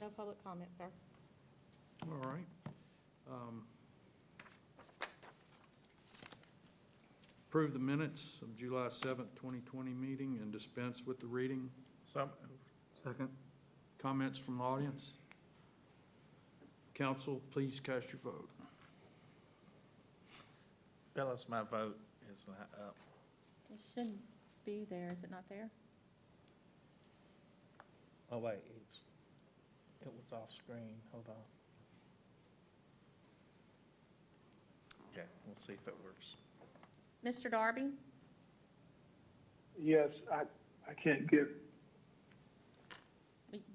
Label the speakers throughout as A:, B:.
A: No public comment, sir.
B: All right. Um, Approve the minutes of July 7th, 2020 meeting and dispense with the reading.
C: Some,
B: Second. Comments from the audience? Council, please cast your vote.
C: fellas, my vote is uh, not up.
D: It shouldn't be there, is it not there?
C: Oh, wait, it's, it was off screen, hold on. Okay, we'll see if it works.
D: Mr. Darby,
E: Yes, I, I can't get,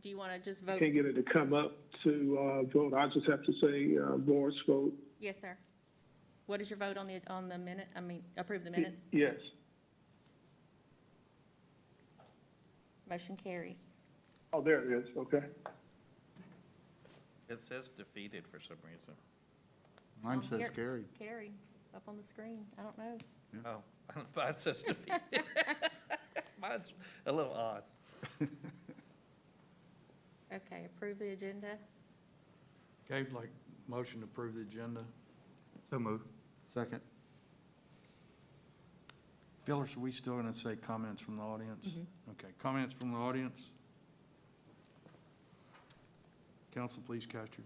D: do you want to just vote?
E: can't get it to come up to, uh, vote. I just have to say, uh, voice vote.
D: Yes, sir. What is your vote on the, on the minute, I mean, approve the minutes?
E: Yes.
D: Motion carries.
E: Oh, there it is, okay.
C: It says defeated for some reason.
F: Mine
D: Um,
F: says
D: here-
F: carried.
D: Carry, up on the screen, I don't know.
C: Oh, mine says defeated. Mine's a little odd.
D: Okay, approve the agenda.
B: Okay, like, motion to approve the agenda.
F: So moved. Second.
B: Phyllis, are we still going to say comments from the audience? Okay, comments from the audience? Council, please cast your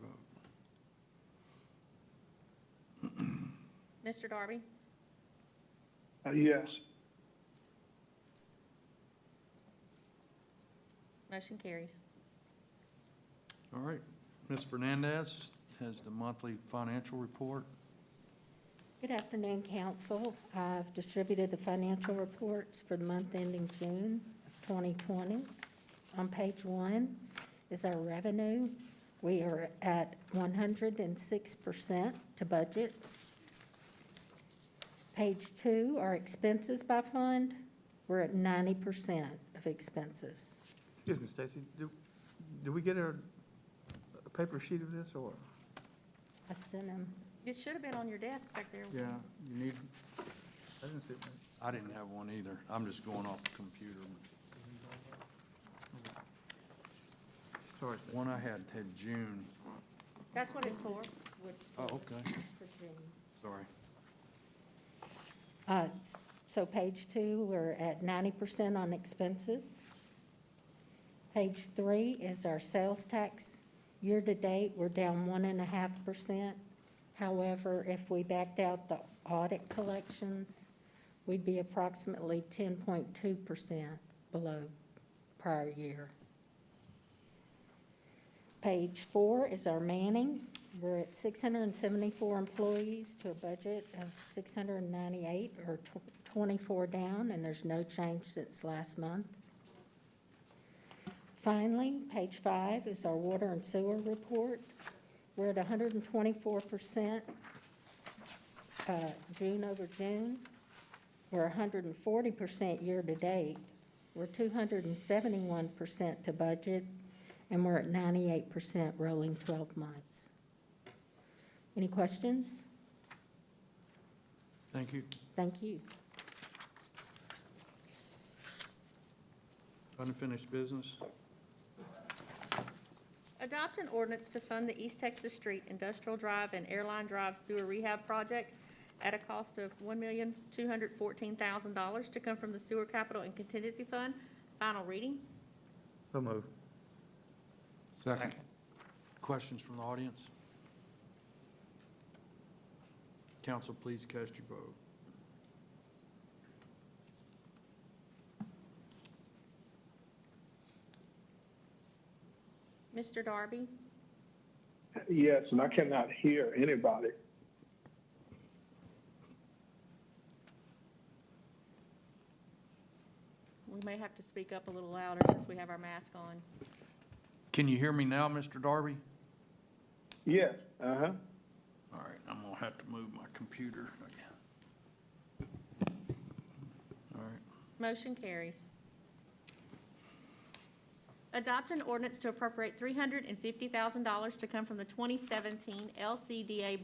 B: vote.
D: Mr. Darby,
E: Uh, yes.
D: motion carries.
B: All right. Ms. Fernandez has the monthly financial report.
A: Good afternoon, council. I've distributed the financial reports for the month ending June 2020. On page one is our revenue. We are at 106% to budget. Page two, our expenses by fund, we're at 90% of expenses.
G: Excuse me, Stacy, do, do we get a, a paper sheet of this, or?
A: I sent them
D: It should have been on your desk back there.
B: Yeah, you need,
G: I didn't see it.
B: I didn't have one either. I'm just going off the computer.
G: Sorry, Stacy.
B: One I had had June.
D: That's what it's for.
B: Oh, okay,
A: for June.
B: sorry.
A: Uh, s- So page two, we're at ninety percent on expenses. Page three is our sales tax. Year-to-date, we're down one and a half percent. However, if we backed out the audit collections, we'd be approximately ten point two percent below prior year. Page four is our manning. We're at 674 employees to a budget of 698, or tw- 24 down, and there's no change since last month. Finally, page five is our water and sewer report. We're at 124% uh, June over June. We're 140% year-to-date. We're 271% to budget, and we're at 98% rolling 12 months. Any questions?
B: Thank you.
A: Thank you.
B: Unfinished business.
D: Adopt an ordinance to fund the East Texas Street Industrial Drive and Airline Drive Sewer Rehab Project at a cost of one million, two hundred fourteen thousand dollars to come from the Sewer Capital and Contingency Fund. Final reading.
G: So moved.
F: Second.
B: Questions from the audience? Council, please cast your vote.
D: Mr. Darby,
E: Yes, and I cannot hear anybody.
D: we may have to speak up a little louder since we have our mask on.
B: Can you hear me now, Mr. Darby?
E: Yes, uh-huh.
B: All right, I'm gonna have to move my computer again. All right.
D: Motion carries. Adopt an ordinance to appropriate three hundred and fifty thousand dollars to come from the twenty seventeen LCDA